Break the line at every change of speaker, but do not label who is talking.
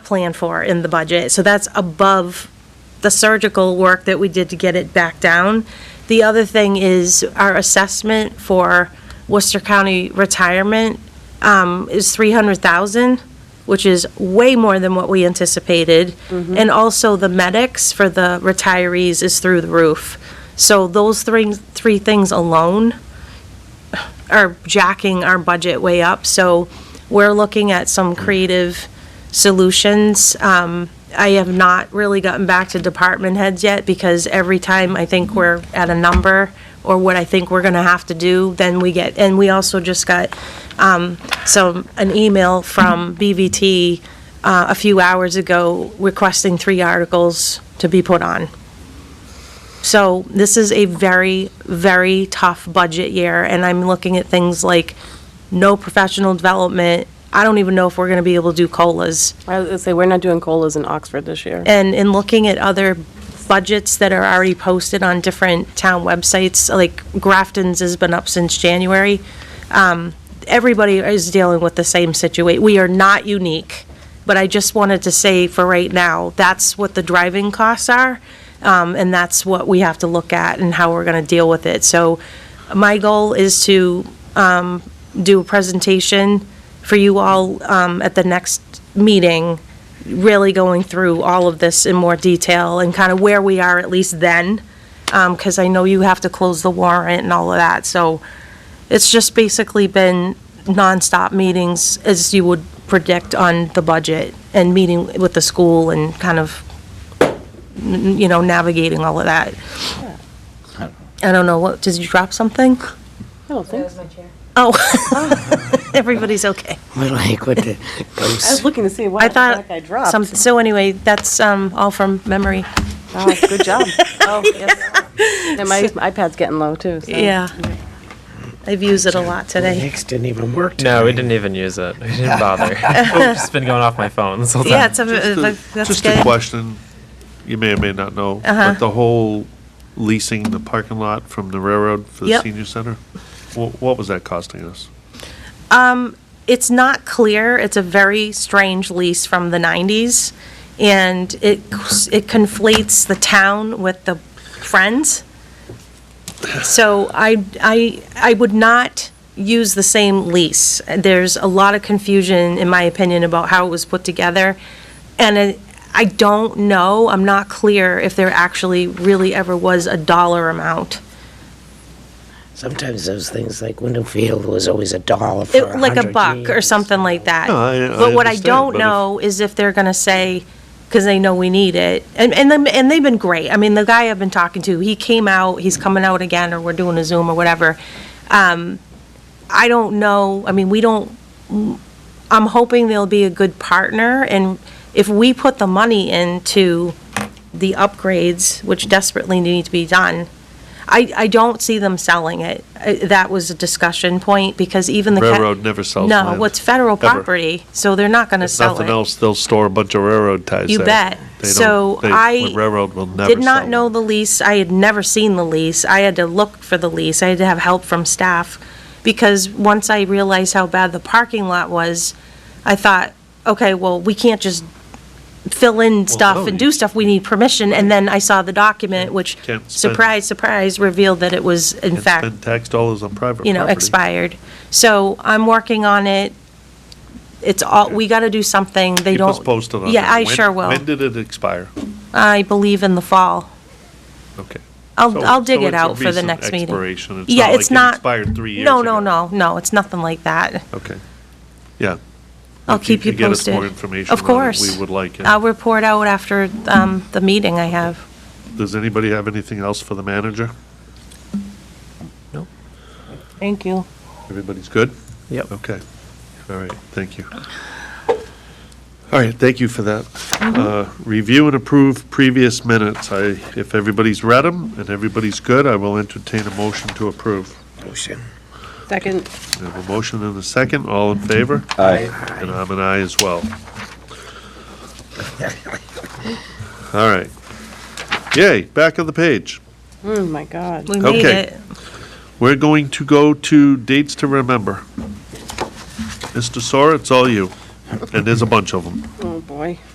planned for in the budget. So that's above the surgical work that we did to get it back down. The other thing is our assessment for Worcester County retirement um, is 300,000, which is way more than what we anticipated. And also the medics for the retirees is through the roof. So those three, three things alone are jacking our budget way up. So we're looking at some creative solutions. Um, I have not really gotten back to department heads yet because every time I think we're at a number or what I think we're going to have to do, then we get, and we also just got um, some, an email from BVT uh, a few hours ago requesting three articles to be put on. So this is a very, very tough budget year, and I'm looking at things like no professional development. I don't even know if we're going to be able to do COLAs.
I was gonna say, we're not doing colas in Oxford this year.
And in looking at other budgets that are already posted on different town websites, like Grafton's has been up since January, um, everybody is dealing with the same situation. We are not unique, but I just wanted to say for right now, that's what the driving costs are, um, and that's what we have to look at and how we're going to deal with it. So my goal is to um, do a presentation for you all um, at the next meeting really going through all of this in more detail and kind of where we are at least then, because I know you have to close the warrant and all of that. So it's just basically been nonstop meetings, as you would predict on the budget, and meeting with the school and kind of, n- you know, navigating all of that. I don't know, what, did you drop something?
I don't think so.
Oh, everybody's okay.
We're like with the
I was
ghost.
looking to see
I
why the
thought,
fuck I dropped.
some- so anyway, that's um, all from memory.
Oh, good job. Oh, yes. And my iPad's getting low, too, so.
Yeah. I've used it a lot today.
Next didn't even work.
No, we didn't even use it. We didn't bother. it's been going off my phone this whole time.
Yeah, it's a,
Just
that's Uh-huh.
a-
good.
Just a question, you may or may not know, but the whole leasing the parking lot from the railroad for the
Yep.
senior center, wha- what was that costing us?
It's not clear. It's a very strange lease from the 90s, and it, it conflates the town with the Friends. So I, I, I would not use the same lease. There's a lot of confusion, in my opinion, about how it was put together. And I- I don't know, I'm not clear if there actually really ever was a dollar amount.
Sometimes those things like Window Field was always a dollar for
It-
a
like a
hundred
buck or
years.
something like that.
No, I- I
But what I
understand,
don't
but if-
know is if they're gonna say, because they know we need it, and, and, them- and they've been great. I mean, the guy I've been talking to, he came out, he's coming out again, or we're doing a Zoom or whatever. Um, I don't know, I mean, we don't, I'm hoping they'll be a good partner, and if we put the money into the upgrades, which desperately need to be done, I, I don't see them selling it. Uh, That was a discussion point, because even the. ca-
Railroad never sells land.
No, it's federal
Ever.
property, so they're not gonna
If
sell it.
Nothing else, they'll store a bunch of railroad ties
You
there.
bet.
They don't-
So
they-
I
the Railroad will never
Did not
sell
know
them.
the lease. I had never seen the lease. I had to look for the lease. I had to have help from staff. Because once I realized how bad the parking lot was, I thought, okay, well, we can't just fill in
no,
stuff and do
you-
stuff. We need permission. And then I saw the document, which,
Can't spend-
surprise, surprise, revealed that it was in
And
fact
Spend tax dollars on private property.
you know, expired. So I'm working on it. It's all, we got to do something. They
Keep
don't.
us posted on that.
Yeah, I
When-
sure will.
When did it expire?
I believe in the fall.
Okay.
I'll,
So-
I'll dig
so
it
it's a
out for the
recent
next meeting.
expiration. It's
Yeah,
not
it's
like it
not-
expired three years
No, no,
ago.
no, no, it's nothing like that.
Okay, yeah.
I'll
If you
keep you
could get us
posted.
more information
Of
on it, we
course.
would like it.
I'll report out after um, the meeting I have.
Does anybody have anything else for the manager?
Thank you.
Everybody's good?
Yep.
Okay. All right, thank you. All right, thank you for that.
Mm-hmm.
Uh, Review and approve previous minutes. I, if everybody's read them and everybody's good, I will entertain a motion to approve.
Motion.
Second,
We have a motion and a second. All in favor?
Aye.
And I'm an aye as well. All right. Yay, back of the page.
oh my God.
We made
Okay.
it.
We're going to go to dates to remember. Mr. Sora, it's all you. And there's a bunch of them.
Oh, boy.